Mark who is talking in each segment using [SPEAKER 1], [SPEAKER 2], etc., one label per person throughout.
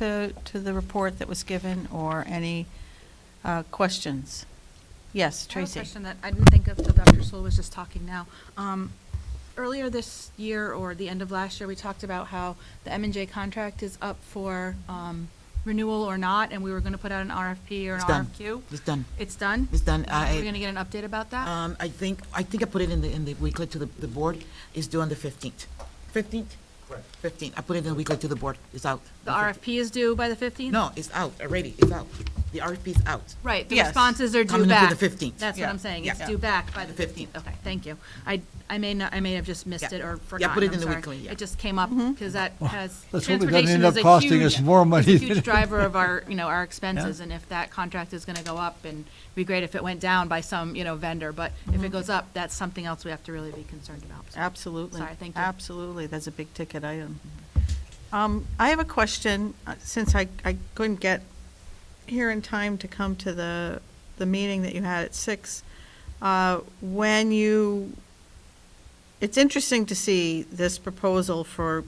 [SPEAKER 1] to, to the report that was given or any uh, questions? Yes,
[SPEAKER 2] I
[SPEAKER 1] Tracy?
[SPEAKER 2] have a question that I didn't think of till Dr. Sewell was just talking now. Um, Earlier this year, or the end of last year, we talked about how the M and J contract is up for um, renewal or not, and we were going to put out an RFP or an
[SPEAKER 3] It's done.
[SPEAKER 2] RFQ.
[SPEAKER 3] It's done.
[SPEAKER 2] It's done?
[SPEAKER 3] It's done.
[SPEAKER 2] Are we
[SPEAKER 3] I-
[SPEAKER 2] going to get an update about that?
[SPEAKER 3] Um, I think, I think I put it in the, in the weekly to the, the board, is due on the fifteenth. Fifteenth? Correct. Fifteenth. I put it in the weekly to the board. It's out.
[SPEAKER 2] The RFP is due by the 15th?
[SPEAKER 3] No, it's out already. It's out. The RFP is out.
[SPEAKER 2] Right, the
[SPEAKER 1] Yes.
[SPEAKER 2] responses are due
[SPEAKER 3] Coming up
[SPEAKER 2] back.
[SPEAKER 3] to the 15th.
[SPEAKER 2] That's what
[SPEAKER 1] Yeah.
[SPEAKER 2] I'm saying, it's
[SPEAKER 3] Yeah.
[SPEAKER 2] due back by the
[SPEAKER 3] The
[SPEAKER 2] 15th.
[SPEAKER 3] 15th.
[SPEAKER 2] Okay, thank you. I, I may not, I may have just missed
[SPEAKER 3] Yeah.
[SPEAKER 2] it or
[SPEAKER 3] Yeah,
[SPEAKER 2] forgotten,
[SPEAKER 3] put it
[SPEAKER 2] I'm
[SPEAKER 3] in the
[SPEAKER 2] sorry.
[SPEAKER 3] weekly, yeah. Mm-hmm.
[SPEAKER 2] It just came up, because that has,
[SPEAKER 4] Let's hope it doesn't
[SPEAKER 2] transportation
[SPEAKER 4] end
[SPEAKER 2] is
[SPEAKER 4] up
[SPEAKER 2] a
[SPEAKER 4] costing
[SPEAKER 2] huge-
[SPEAKER 4] us more money
[SPEAKER 2] is a
[SPEAKER 4] than
[SPEAKER 2] huge
[SPEAKER 4] it-
[SPEAKER 2] driver of our, you know, our expenses, and if that contract is going to go up, and it'd be great if it went down by some, you know, vendor, but if
[SPEAKER 3] Mm-hmm.
[SPEAKER 2] it goes up, that's something else we have to really be concerned about. So,
[SPEAKER 1] Absolutely.
[SPEAKER 2] Sorry, thank you.
[SPEAKER 1] Absolutely, that's a big ticket item. Um, I have a question, uh, since I, I couldn't get here in time to come to the, the meeting that you had at six. Uh, when you, it's interesting to see this proposal for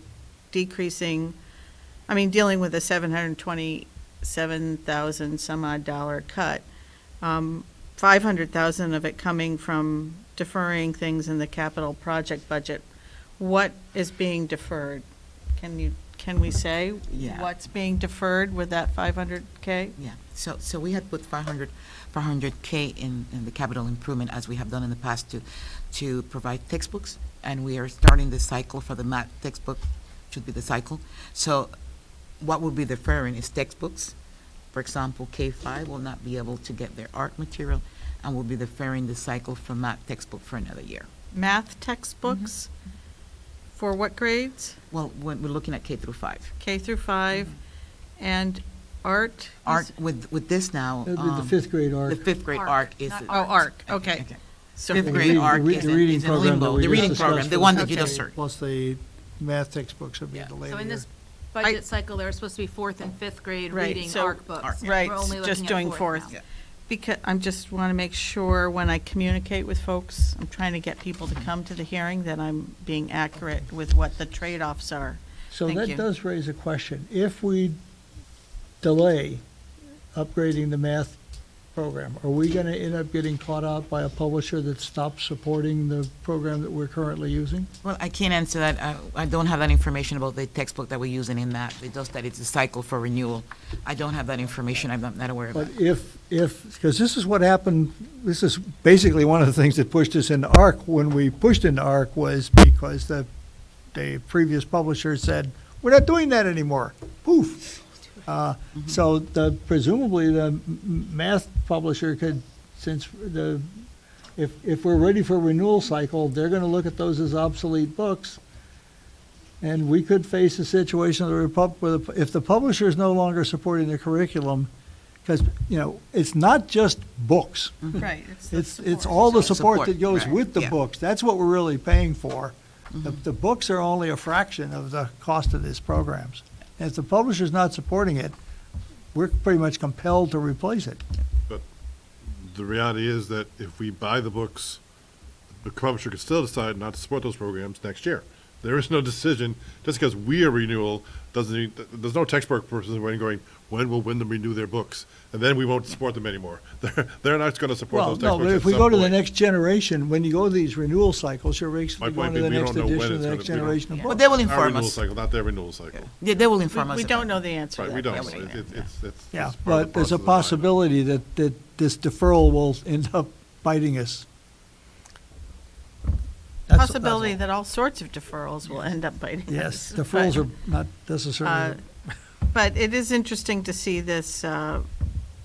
[SPEAKER 1] decreasing, I mean, dealing with a seven hundred and twenty-seven thousand some odd dollar cut. Um, five hundred thousand of it coming from deferring things in the capital project budget. What is being deferred? Can you, can we say?
[SPEAKER 3] Yeah.
[SPEAKER 1] What's being deferred with that five hundred K?
[SPEAKER 3] Yeah, so, so we had put 500, 500K in, in the capital improvement, as we have done in the past, to, to provide textbooks, and we are starting the cycle for the math textbook, should be the cycle. So what will be deferring is textbooks. For example, K-5 will not be able to get their art material, and will be deferring the cycle for math textbook for another year.
[SPEAKER 1] math textbooks
[SPEAKER 3] Mm-hmm.
[SPEAKER 1] for what grades?
[SPEAKER 3] Well, when we're looking at K through 5.
[SPEAKER 1] K through five, and art?
[SPEAKER 3] Mm-hmm. Art, with, with this now.
[SPEAKER 4] That'd be the
[SPEAKER 3] um,
[SPEAKER 4] fifth grade
[SPEAKER 3] The
[SPEAKER 4] arc.
[SPEAKER 3] fifth grade
[SPEAKER 2] Arc,
[SPEAKER 3] arc is.
[SPEAKER 2] not
[SPEAKER 1] Oh, arc, okay. So
[SPEAKER 3] Fifth
[SPEAKER 4] The
[SPEAKER 3] grade
[SPEAKER 4] reading- the
[SPEAKER 3] arc
[SPEAKER 4] re-
[SPEAKER 3] is
[SPEAKER 4] the
[SPEAKER 3] in-
[SPEAKER 4] reading
[SPEAKER 3] is in
[SPEAKER 4] program
[SPEAKER 3] limbo.
[SPEAKER 4] that we
[SPEAKER 3] The reading
[SPEAKER 4] just
[SPEAKER 3] program,
[SPEAKER 4] discussed
[SPEAKER 3] the
[SPEAKER 4] was
[SPEAKER 3] one
[SPEAKER 1] that you
[SPEAKER 4] okay.
[SPEAKER 1] just
[SPEAKER 3] heard.
[SPEAKER 4] Plus the math textbooks would be
[SPEAKER 3] Yeah.
[SPEAKER 4] the
[SPEAKER 3] So
[SPEAKER 4] later
[SPEAKER 2] So in
[SPEAKER 4] year.
[SPEAKER 2] this budget cycle, there were supposed to be fourth and fifth grade
[SPEAKER 1] Right,
[SPEAKER 2] reading
[SPEAKER 1] so-
[SPEAKER 2] ARC books.
[SPEAKER 3] Arc, yeah.
[SPEAKER 2] We're
[SPEAKER 1] Right,
[SPEAKER 2] only
[SPEAKER 1] just
[SPEAKER 2] looking at
[SPEAKER 1] doing
[SPEAKER 2] now.
[SPEAKER 1] fourth. Because, I'm just want to make sure when I communicate with folks, I'm trying to get people to come to the hearing, that I'm being accurate with what the trade-offs are.
[SPEAKER 4] So
[SPEAKER 1] Thank you.
[SPEAKER 4] that does raise a question. If we delay upgrading the math program, are we going to end up getting caught out by a publisher that stops supporting the program that we're currently using?
[SPEAKER 3] Well, I can't answer that. I, I don't have that information about the textbook that we're using in that. It's just that it's a cycle for renewal. I don't have that information. I'm not- not aware of
[SPEAKER 4] But
[SPEAKER 3] that.
[SPEAKER 4] if, if, because this is what happened, this is basically one of the things that pushed us into ARC when we pushed into ARC was because the, the previous publisher said, we're not doing that anymore. Poof. Uh, So the, presumably the m- m- math publisher could, since the, if, if we're ready for renewal cycle, they're going to look at those as obsolete books. And we could face a situation where the pub- where the- if the publisher is no longer supporting the curriculum, because, you know, it's not just books.
[SPEAKER 1] Right.
[SPEAKER 4] Mm-hmm. It's, it's all the support that goes
[SPEAKER 3] right,
[SPEAKER 4] with the
[SPEAKER 3] yeah.
[SPEAKER 4] books. That's what we're really paying for. The, the books are only a fraction of the cost of these programs. And if the publisher's not supporting it, we're pretty much compelled to replace it.
[SPEAKER 5] the reality is that if we buy the books, the publisher could still decide not to support those programs next year. There is no decision, just because we are renewal, doesn't, mean- there's no textbook person going, going, when will Wyndham renew their books? And then we won't support them anymore. They're, they're not gonna support
[SPEAKER 4] Well,
[SPEAKER 5] those
[SPEAKER 4] no,
[SPEAKER 5] textbooks
[SPEAKER 4] but
[SPEAKER 5] at
[SPEAKER 4] if we
[SPEAKER 5] some
[SPEAKER 4] go to the
[SPEAKER 5] point.
[SPEAKER 4] next generation, when you go to these renewal cycles, you're
[SPEAKER 5] My
[SPEAKER 4] basically going
[SPEAKER 5] point
[SPEAKER 4] to
[SPEAKER 5] being,
[SPEAKER 4] the
[SPEAKER 5] we
[SPEAKER 4] next
[SPEAKER 5] don't know when
[SPEAKER 4] edition of
[SPEAKER 5] it's
[SPEAKER 4] the
[SPEAKER 5] gonna
[SPEAKER 4] next
[SPEAKER 5] be.
[SPEAKER 4] generation of
[SPEAKER 3] But
[SPEAKER 4] books.
[SPEAKER 3] they will
[SPEAKER 5] Our
[SPEAKER 3] inform
[SPEAKER 5] renewal
[SPEAKER 3] us.
[SPEAKER 5] cycle, not their renewal cycle.
[SPEAKER 3] They, they will inform us.
[SPEAKER 1] We
[SPEAKER 3] about
[SPEAKER 1] don't know the answer to
[SPEAKER 5] Right,
[SPEAKER 1] that.
[SPEAKER 5] we don't.
[SPEAKER 1] question.
[SPEAKER 5] It- it- It's, it's.
[SPEAKER 4] Yeah,
[SPEAKER 5] it's part of
[SPEAKER 4] but
[SPEAKER 5] the
[SPEAKER 4] there's a
[SPEAKER 5] process of buying them.
[SPEAKER 4] possibility that, that this deferral will end up biting us. That's- that's
[SPEAKER 1] Possibility
[SPEAKER 4] all.
[SPEAKER 1] that all sorts of deferrals will end up biting
[SPEAKER 4] Yes,
[SPEAKER 1] us,
[SPEAKER 4] the
[SPEAKER 1] but-
[SPEAKER 4] frills are not necessarily,
[SPEAKER 1] Uh, But it is interesting to see this, uh,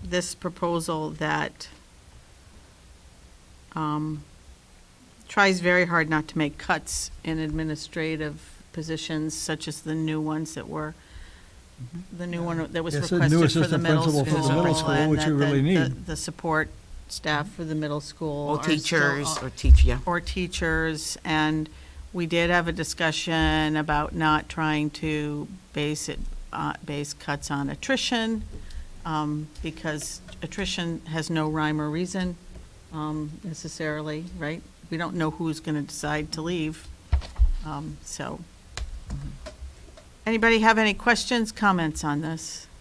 [SPEAKER 1] this proposal that um, tries very hard not to make cuts in administrative positions such as the new ones that were, the new one that was
[SPEAKER 4] Yes, the new
[SPEAKER 1] requested for the
[SPEAKER 4] assistant
[SPEAKER 1] middle
[SPEAKER 4] principal
[SPEAKER 1] school.
[SPEAKER 4] for the middle school,
[SPEAKER 1] and
[SPEAKER 4] which
[SPEAKER 1] that
[SPEAKER 4] you
[SPEAKER 1] the-
[SPEAKER 4] really
[SPEAKER 1] the-
[SPEAKER 4] need.
[SPEAKER 1] The support staff for the middle school.
[SPEAKER 3] Or
[SPEAKER 1] are still
[SPEAKER 3] teachers,
[SPEAKER 1] all-
[SPEAKER 3] or teach, yeah.
[SPEAKER 1] or teachers, and we did have a discussion about not trying to base it, uh, base cuts on attrition, um, because attrition has no rhyme or reason um, necessarily, right? We don't know who's going to decide to leave, um, so. Anybody have any questions, comments on this?